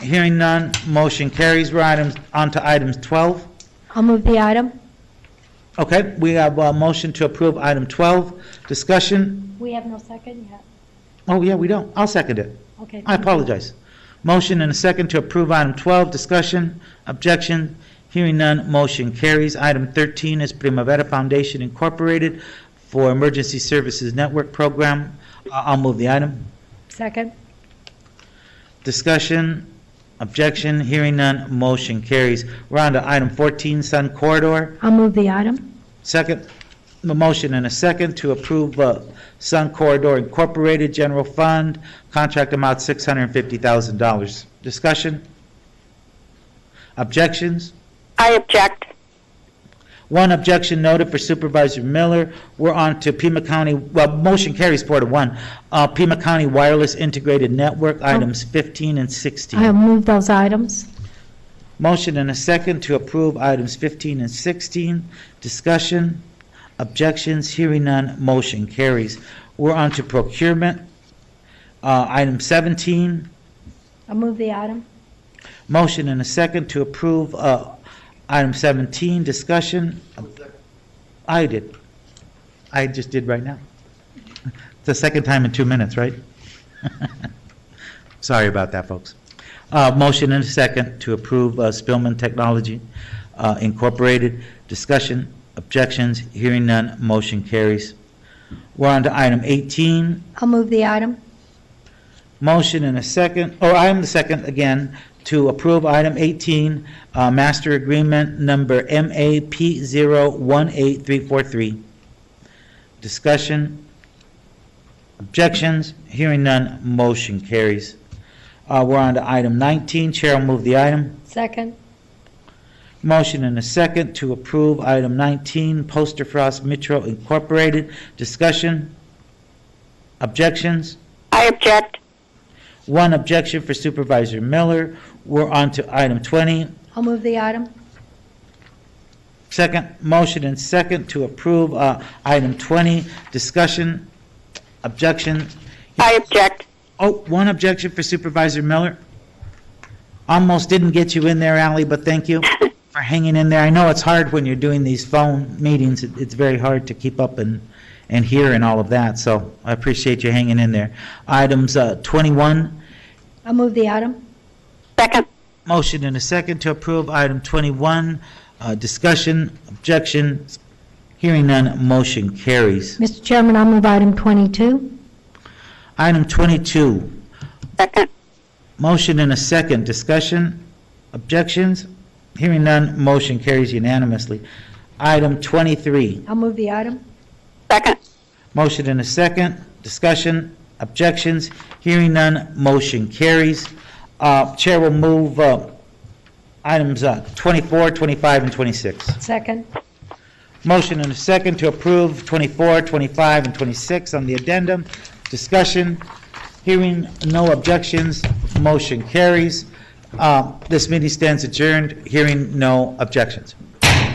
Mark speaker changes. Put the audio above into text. Speaker 1: Hearing none, motion carries. We're items, on to items 12.
Speaker 2: I'll move the item.
Speaker 1: Okay, we have a motion to approve item 12. Discussion,
Speaker 2: We have no second yet.
Speaker 1: oh yeah, we don't. I'll second it.
Speaker 2: Okay.
Speaker 1: I apologize. Motion and a second to approve item 12. Discussion, objection, hearing none, motion carries. Item 13 is Primavera Foundation Incorporated for Emergency Services Network Program. I- I'll move the item.
Speaker 2: Second.
Speaker 1: Discussion, objection, hearing none, motion carries. We're on to item 14, Sun Corridor.
Speaker 2: I'll move the item.
Speaker 1: Second, the motion and a second to approve uh, Sun Corridor Incorporated General Fund, contract amount $650,000. Discussion? Objections?
Speaker 3: I object.
Speaker 1: One objection noted for Supervisor Miller. We're on to Pima County, well, motion carries four to one. Uh, Pima County Wireless Integrated Network,
Speaker 3: Oh.
Speaker 1: items 15 and 16.
Speaker 2: I'll move those items.
Speaker 1: Motion and a second to approve items 15 and 16. Discussion, objections, hearing none, motion carries. We're on to procurement. Uh, Item 17,
Speaker 2: I'll move the item.
Speaker 1: motion and a second to approve uh, item 17. Discussion. I did. I just did right now. It's the second time in two minutes, right? Sorry about that, folks. Uh, Motion and a second to approve uh, Spillman Technology uh, Incorporated. Discussion, objections, hearing none, motion carries. We're on to item 18,
Speaker 2: I'll move the item.
Speaker 1: motion and a second, or I am the second again, to approve item 18, uh, master agreement number MAP018343. Discussion, objections, hearing none, motion carries. Uh, We're on to item 19, Chair will move the item.
Speaker 2: Second.
Speaker 1: Motion and a second to approve item 19, Poster Frost Metro Incorporated. Discussion, objections?
Speaker 3: I object.
Speaker 1: One objection for Supervisor Miller. We're on to item 20.
Speaker 2: I'll move the item.
Speaker 1: Second, motion and second to approve uh, item 20. Discussion, objection.
Speaker 3: I object.
Speaker 1: Oh, one objection for Supervisor Miller. Almost didn't get you in there, Ally, but thank you for hanging in there. I know it's hard when you're doing these phone meetings. It- It's very hard to keep up and, and hear and all of that, so I appreciate you hanging in there. Items uh, 21
Speaker 2: I'll move the item.
Speaker 3: Second.
Speaker 1: Motion and a second to approve item 21. Uh, Discussion, objection, hearing none, motion carries.
Speaker 2: Mr. Chairman, I'll move item 22.
Speaker 1: Item 22,
Speaker 3: Second.
Speaker 1: motion and a second, discussion, objections, hearing none, motion carries unanimously. Item 23,
Speaker 2: I'll move the item.
Speaker 3: Second.
Speaker 1: motion and a second, discussion, objections, hearing none, motion carries. Uh, Chair will move uh, items uh, 24, 25, and 26.
Speaker 2: Second.
Speaker 1: Motion and a second to approve 24, 25, and 26 on the addendum. Discussion, hearing no objections, motion carries. Uh, This meeting stands adjourned, hearing no objections.